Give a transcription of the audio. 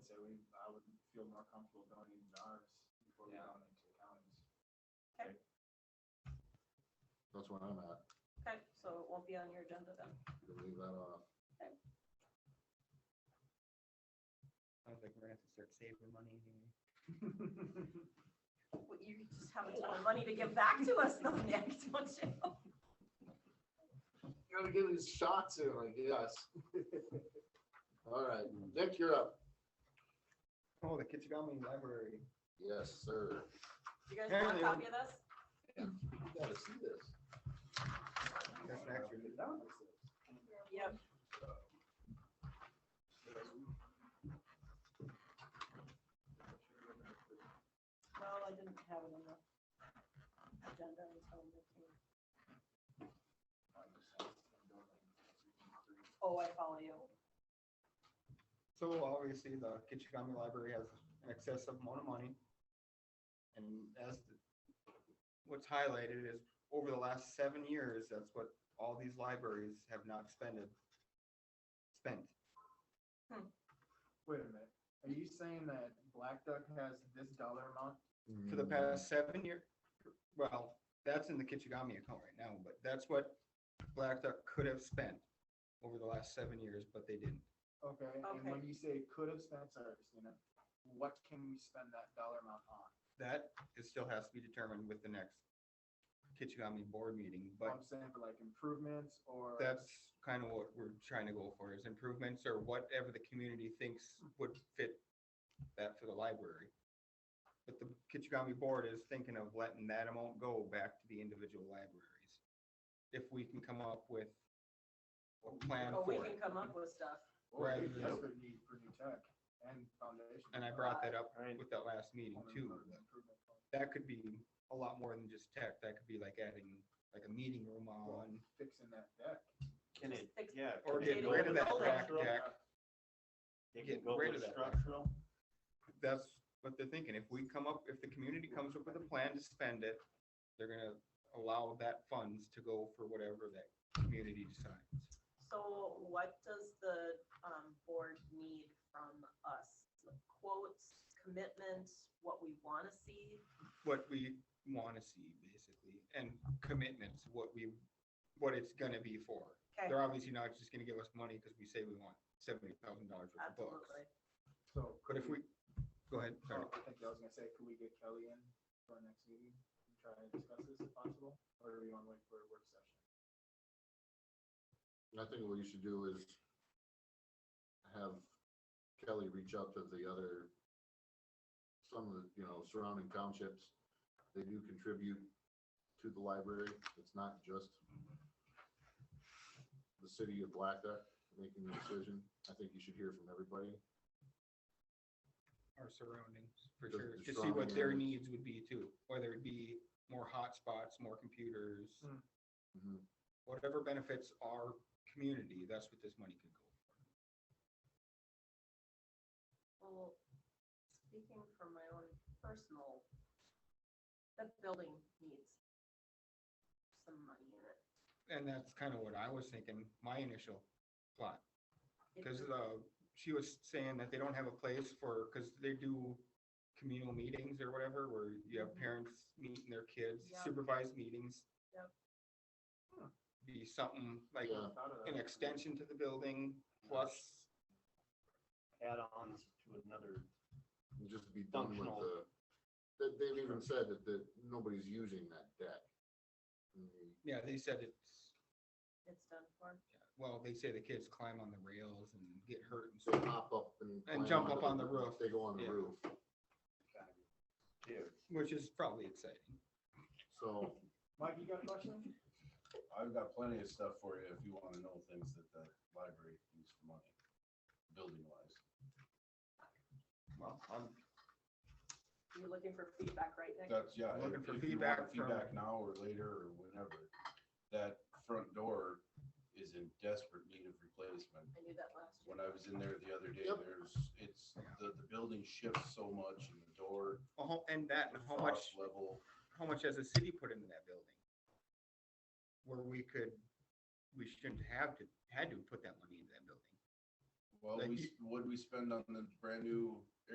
feel more comfortable going into ours before we Yeah. go into the counties. That's where I'm at. Okay, so it won't be on your agenda then. You can leave that off. Sounds like we're gonna have to start saving money anyway. Well, You just have a ton of money to give back to us though, Nick, don't you? You gotta get these shots in, I guess. All right, Nick, you're up. Oh, the Kichigami Library. Yes, sir. You guys want a Apparently- copy of this? You gotta see this. That's an extra. Yep. No, I didn't have it on the agenda until Nick came. Oh, I follow you. So obviously, the Kichigami Library has an excessive amount of money. And as the- what's highlighted is over the last seven years, that's what all these libraries have not spended. Spent. Wait a minute, are you saying that Black Duck has this dollar amount? for the past seven year, well, that's in the Kichigami account right now, but that's what Black Duck could have spent over the last seven years, but they didn't. Okay, and when you say could have spent service, you know, what can we spend that dollar amount on? That is still has to be determined with the next Kichigami board meeting, but I'm saying for like improvements or. that's kind of what we're trying to go for is improvements or whatever the community thinks would fit that for the library. But the Kichigami board is thinking of letting that amount go back to the individual libraries. If we can come up with a plan Oh, we for it. can come up with stuff. Or we Right. desperate need for new tech and foundation. And I brought that up Right. with that last meeting too. that That could be a lot more than just tech. That could be like adding like a meeting room on Fixing that deck. Can it, Just fix- yeah. or can get it go rid of with that structural? back deck. It can get go rid with of that. structural, that's what they're thinking. If we come up, if the community comes up with a plan to spend it, they're gonna allow that funds to go for whatever that community decides. So what does the um, board need from us? Like Quotes, commitment, what we want to see? What we wanna see basically and commitments, what we, what it's gonna be for. Okay, They're obviously not just gonna give us money because we say we want seventy thousand dollars worth of books. absolutely. So. But if we, go ahead, Oh, sorry. I think I was gonna say, could we get Kelly in for our next meeting and try and discuss this if possible, or do you wanna wait for a work session? I think what you should do is have Kelly reach out to the other, some of the, you know, surrounding townships. They do contribute to the library. It's not just the city of Black Duck making the decision. I think you should hear from everybody. our surroundings, for The- sure, the to see what their surrounding needs would be too, whether it be more hotspots, more computers. Hmm. Mhm. Whatever benefits our community, that's what this money could go for. Well, speaking from my own personal, that building needs some money in it. And that's kind of what I was thinking, my initial plot, It because, just- uh, she was saying that they don't have a place for, because they do communal meetings or whatever, where you have parents meeting their kids, Yep. supervised meetings. Yep. Hmm. Be something like Yeah. Thought of that. an extension to the building, plus add-ons to another, and just be done with Functional. the, they- they've even said that, that nobody's using that deck. Mm, Yeah, they said it's, It's done for. well, they say the kids climb on the rails and get hurt and They stuff, hop up and. And jump climb up onto on the roof. They go on the Yeah. roof, kids. which is probably exciting. so. Mike, you got a question? I've got plenty of stuff for you if you wanna know things that the library needs for money, building wise. Well, I'm, You're looking for feedback, right, Nick? That's, yeah. if- Looking for if you feedback want from- Feedback now or later or whenever. That front door is in desperate need of replacement. I knew that last year. When I was in there the other day, Yep. there's, it's, the, the building shifts so much and the door. oh, and that, and how much, frost Level, how much has the city put into that building? Where we could, we shouldn't have to, had to put that money into that building. well, Like we, you- s- what'd we spend on the brand new